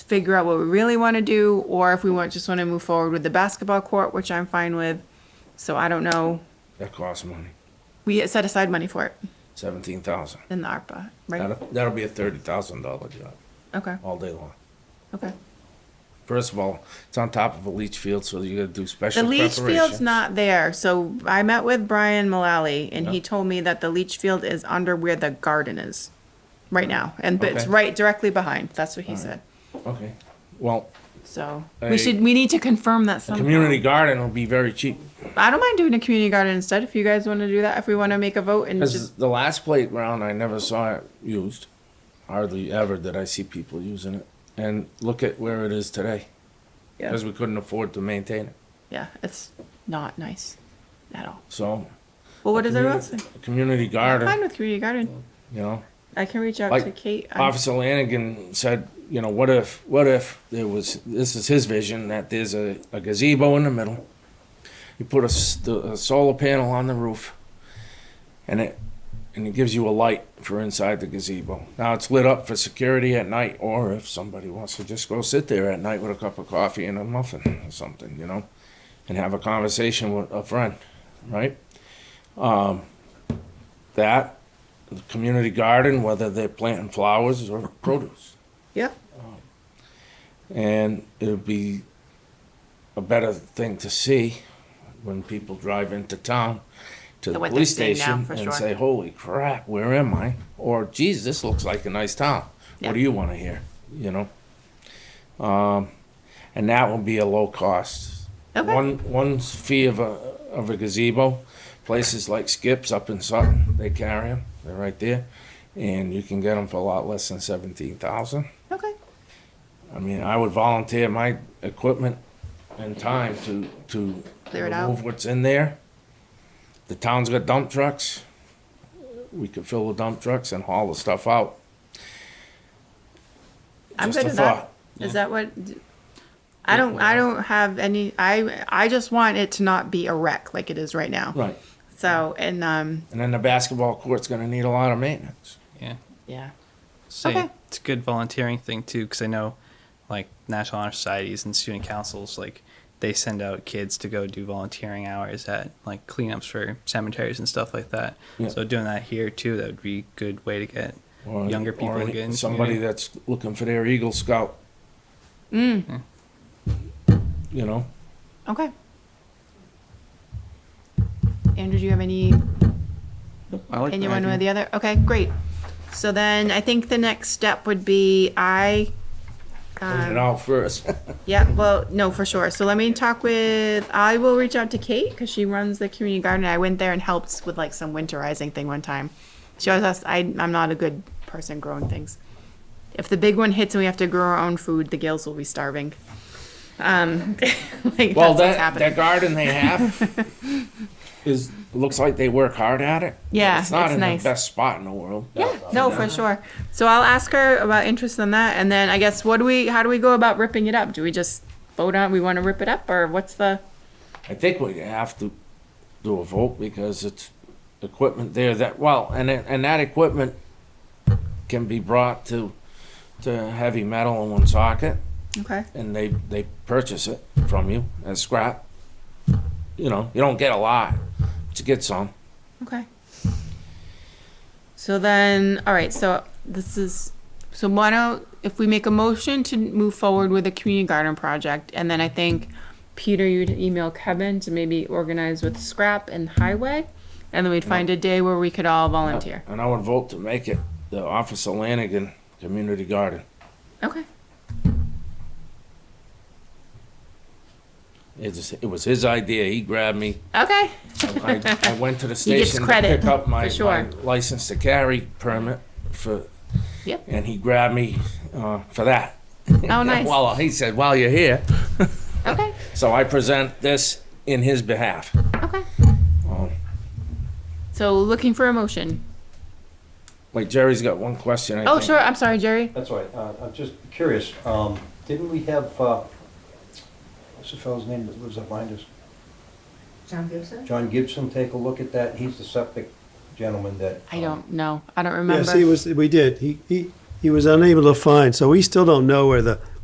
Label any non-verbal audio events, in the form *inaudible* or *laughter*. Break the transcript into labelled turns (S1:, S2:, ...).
S1: figure out what we really want to do, or if we want, just want to move forward with the basketball court, which I'm fine with. So I don't know.
S2: That costs money,
S1: We set aside money for it
S2: seventeen thousand.
S1: in the ARPA, right?
S2: That'll, that'll be a thirty thousand dollar job
S1: Okay,
S2: all day long.
S1: okay.
S2: First of all, it's on top of a leach field, so you gotta do special
S1: The leach
S2: preparation.
S1: field's not there, so I met with Brian Mullally, and he
S2: Yeah.
S1: told me that the leach field is under where the garden is, right now, and but it's
S2: Okay.
S1: right directly behind. That's what he said.
S2: Okay, well,
S1: So
S2: I-
S1: we should we need to confirm that somehow.
S2: community garden will be very cheap.
S1: I don't mind doing a community garden instead if you guys want to do that. If we want to make a vote and
S2: Because
S1: just
S2: the last plate round, I never saw it used. Hardly ever did I see people using it. And look at where it is today,
S1: yeah,
S2: because we couldn't afford to maintain it.
S1: yeah, it's not nice at all.
S2: So.
S1: Well, what does everyone
S2: community-
S1: say?
S2: a Community
S1: I'm fine
S2: garden,
S1: with community garden.
S2: you know.
S1: I can reach out
S2: Like,
S1: to Kate. I'm-
S2: Officer Lanigan said, you know, what if, what if there was, this is his vision, that there's a a gazebo in the middle. You put a, s- the- a solar panel on the roof and it, and it gives you a light for inside the gazebo. Now it's lit up for security at night, or if somebody wants to just go sit there at night with a cup of coffee and a muffin or something, you know, and have a conversation with a friend, right? Um, that the community garden, whether they're planting flowers or produce.
S1: yeah,
S2: And it would be a better thing to see when people drive into town to the
S1: What they're
S2: police
S1: seeing now,
S2: station
S1: for sure.
S2: and say, holy crap, where am I? Or geez, this looks like a nice town.
S1: Yeah.
S2: What do you want to hear? You know? Um, and that would be a low cost.
S1: Okay.
S2: One, one fee of a, of a gazebo, places like Skips up in Sutton, they carry them, they're right there. And you can get them for a lot less than seventeen thousand.
S1: okay,
S2: I mean, I would volunteer my equipment and time to, to
S1: Clear it out.
S2: remove what's in there. The town's got dump trucks. We could fill the dump trucks and haul the stuff out.
S1: I'm
S2: Just
S1: good
S2: a
S1: with that.
S2: thought.
S1: Is that what? I don't. I don't have any. I I just want it to not be a wreck like it is right now.
S2: Right.
S1: So and um
S2: And then the basketball court's gonna need a lot of maintenance.
S3: Yeah.
S1: yeah.
S3: So
S1: Okay.
S3: it's a good volunteering thing too, because I know, like National Honor Societies and student councils, like they send out kids to go do volunteering hours at like cleanups for cemeteries and stuff like that.
S2: Yeah.
S3: So doing that here too, that would be a good way to get
S2: Or-
S3: younger
S2: or
S3: people to
S2: any-
S3: get in the
S2: Somebody
S3: community.
S2: that's looking for their Eagle Scout.
S1: Mm.
S2: You know,
S1: Okay. Andrew, do you have any
S4: I like
S1: opinion
S4: that
S1: one way or
S4: idea.
S1: the other? Okay, great. So then I think the next step would be I.
S2: clean it
S1: Um,
S2: out first.
S1: yeah, well, no, for sure. So let me talk with. I will reach out to Kate because she runs the community garden. I went there and helped with like some winterizing thing one time. She always asks, I, I'm not a good person growing things. If the big one hits and we have to grow our own food, the gills will be starving. Um, *laughs* like
S2: Well,
S1: that's what's
S2: that,
S1: happening.
S2: that garden they have
S1: *laughs*
S2: is, looks like they work hard at it.
S1: Yeah,
S2: It's not
S1: it's
S2: in the
S1: nice.
S2: best spot in the world.
S1: Yeah, no, for sure. So I'll ask her about interest in that, and then I guess what do we? How do we go about ripping it up? Do we just vote on we want to rip it up, or what's the?
S2: I think we have to do a vote because it's equipment there that, well, and, it- and that equipment can be brought to, to heavy metal in one socket
S1: Okay.
S2: and they, they purchase it from you as scrap. You know, you don't get a lot, but you get some.
S1: Okay. So then, all right. So this is so why don't if we make a motion to move forward with the community garden project, and then I think Peter, you'd email Kevin to maybe organize with scrap and highway, and then we'd find a day where we could all volunteer.
S2: And I would vote to make it the Officer Lanigan Community Garden.
S1: Okay.
S2: It was, it was his idea. He grabbed me.
S1: Okay.
S2: I, I went to the
S1: *laughs* He gets
S2: station to
S1: credit,
S2: pick up my,
S1: for sure.
S2: my license to carry permit for,
S1: Yep.
S2: and he grabbed me uh, for that. *laughs*
S1: Oh, nice.
S2: Well, he said, "While you're here,"
S1: Okay.
S2: so I present this in his behalf.
S1: Okay.
S2: Um,
S1: So looking for a motion.
S2: wait, Jerry's got one question. I
S1: Oh,
S2: think.
S1: sure. I'm sorry, Jerry.
S5: That's all right. Uh, I'm just curious, um, didn't we have, uh, what's the fellow's name that lives up behind us?
S6: John Gibson?
S5: John Gibson, take a look at that. He's the septic gentleman that.
S1: I
S5: um,
S1: don't know. I don't remember.
S7: Yes, he was, we did. He, he, he was unable to find, so we still don't know where the